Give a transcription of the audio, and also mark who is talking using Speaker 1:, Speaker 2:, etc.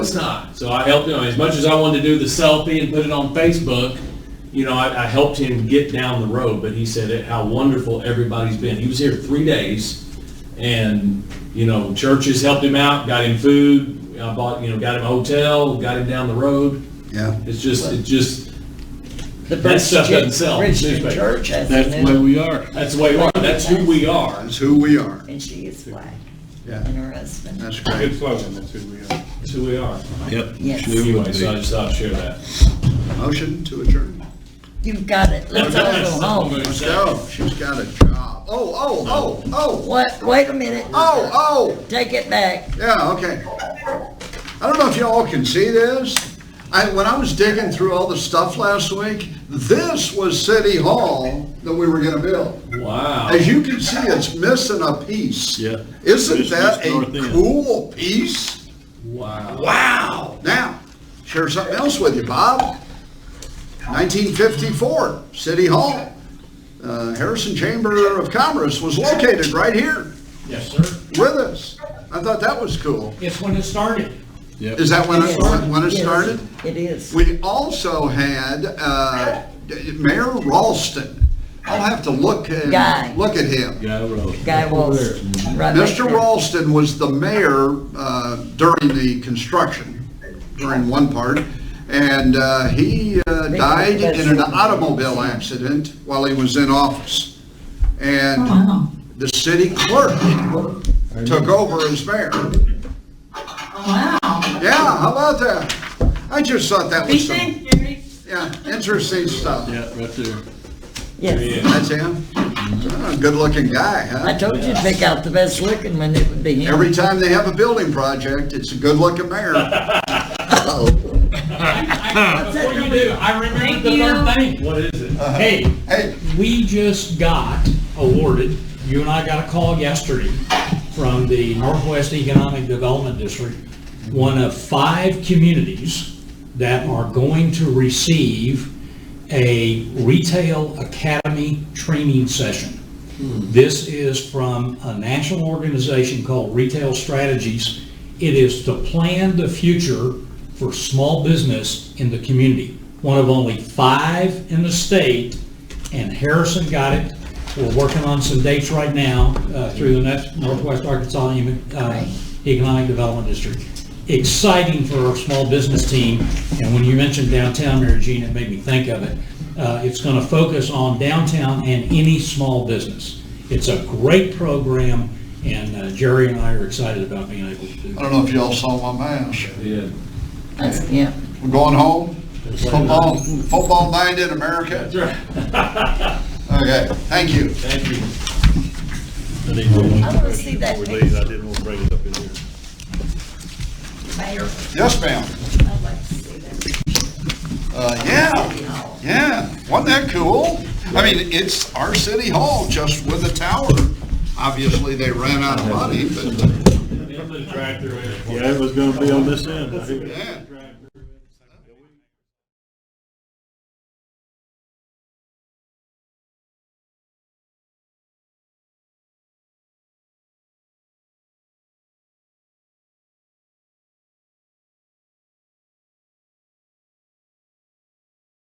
Speaker 1: It's not. So I helped him, as much as I wanted to do the selfie and put it on Facebook, you know, I, I helped him get down the road, but he said it- how wonderful everybody's been. He was here three days and, you know, churches helped him out, got him food, I bought, you know, got him a hotel, got him down the road.
Speaker 2: Yeah.
Speaker 1: It's just, it just,
Speaker 3: The
Speaker 1: That stuff
Speaker 3: Bridgeton-
Speaker 1: doesn't sell,
Speaker 3: Bridgeton
Speaker 1: newspaper.
Speaker 3: Church has
Speaker 4: That's
Speaker 3: an
Speaker 4: where we are.
Speaker 1: that's the way we are. That's who we are.
Speaker 2: That's who we are.
Speaker 3: And she is black, and
Speaker 2: Yeah,
Speaker 3: her husband,
Speaker 2: that's
Speaker 5: Good
Speaker 2: great.
Speaker 5: slogan, that's who we are.
Speaker 1: That's who we are.
Speaker 4: Yep.
Speaker 3: Yes.
Speaker 4: sure would
Speaker 1: Anyway, so I
Speaker 4: be.
Speaker 1: just thought I'd share that.
Speaker 2: Motion to adjourn.
Speaker 3: you've got it, let's all go home.
Speaker 2: Let's go. She's got a job. Oh, oh, oh, oh,
Speaker 3: What, wait a minute,
Speaker 2: oh, oh.
Speaker 3: take it back.
Speaker 2: Yeah, okay. I don't know if y'all can see this. I, when I was digging through all the stuff last week, this was City Hall that we were gonna build.
Speaker 1: Wow.
Speaker 2: As you can see, it's missing a piece.
Speaker 4: Yeah.
Speaker 2: Isn't
Speaker 4: It's
Speaker 2: that
Speaker 4: just north
Speaker 2: a
Speaker 4: end.
Speaker 2: cool piece?
Speaker 1: Wow.
Speaker 2: Wow. Now, share something else with you, Bob. 1954, City Hall. Uh, Harrison Chamber of Commerce was located right here
Speaker 6: Yes, sir.
Speaker 2: with us. I thought that was cool.
Speaker 6: It's when it started.
Speaker 4: Yep.
Speaker 2: Is that when it, when it
Speaker 3: Yes,
Speaker 2: started?
Speaker 3: It is.
Speaker 2: We also had uh, Mayor Ralston. I'll have to look and
Speaker 3: Guy.
Speaker 2: look at him.
Speaker 4: Guy Road.
Speaker 3: Guy Walsh. right next to
Speaker 2: Mr.
Speaker 3: him.
Speaker 2: Ralston was the mayor uh, during the construction, during one part, and uh, he uh, died in an automobile accident while he was in office.
Speaker 7: Oh,
Speaker 2: And the city clerk took over as mayor.
Speaker 7: Wow.
Speaker 2: Yeah, how about that? I just thought that was some,
Speaker 7: Thanks, Jerry.
Speaker 2: yeah, interesting stuff.
Speaker 4: Yeah, right there.
Speaker 3: Yes,
Speaker 2: That's him? Ah, Good-looking guy,
Speaker 3: I
Speaker 2: huh?
Speaker 3: told you to pick out the best looking one, it would be him.
Speaker 2: Every time they have a building project, it's a good-looking mayor.
Speaker 6: I- I- Before you do, I remembered the third thing. What is it? Hey,
Speaker 2: Hey,
Speaker 6: we just got awarded, you and I got a call yesterday from the Northwest Economic Development District, one of five communities that are going to receive a retail academy training session. This is from a national organization called Retail Strategies. It is to plan the future for small business in the community. One of only five in the state, and Harrison got it. We're working on some dates right now uh, through the Nor- Northwest Arkansas Human- uh, Economic Development District. Exciting for our small business team, and when you mentioned downtown, Mary Jean, it made me think of it. Uh, It's going to focus on downtown and any small business. It's a great program, and uh, Jerry and I are excited about being able to do
Speaker 2: I
Speaker 6: it.
Speaker 2: don't know if y'all saw my mask.
Speaker 1: Yeah.
Speaker 3: That's him.
Speaker 2: We're going home. Football, football night in America. Okay, thank you.
Speaker 1: Thank you.
Speaker 4: I need one more
Speaker 3: I wanna see that
Speaker 4: before we
Speaker 3: picture.
Speaker 4: leave. I didn't want to bring it up in here.
Speaker 3: Mayor,
Speaker 2: Yes, ma'am.
Speaker 3: I'd like to see that.
Speaker 2: Uh, yeah, yeah. Wasn't that cool? I mean, it's our city hall just with a tower. Obviously, they ran out of money, but,
Speaker 4: Yeah, it was gonna be on this end. I think.
Speaker 2: yeah.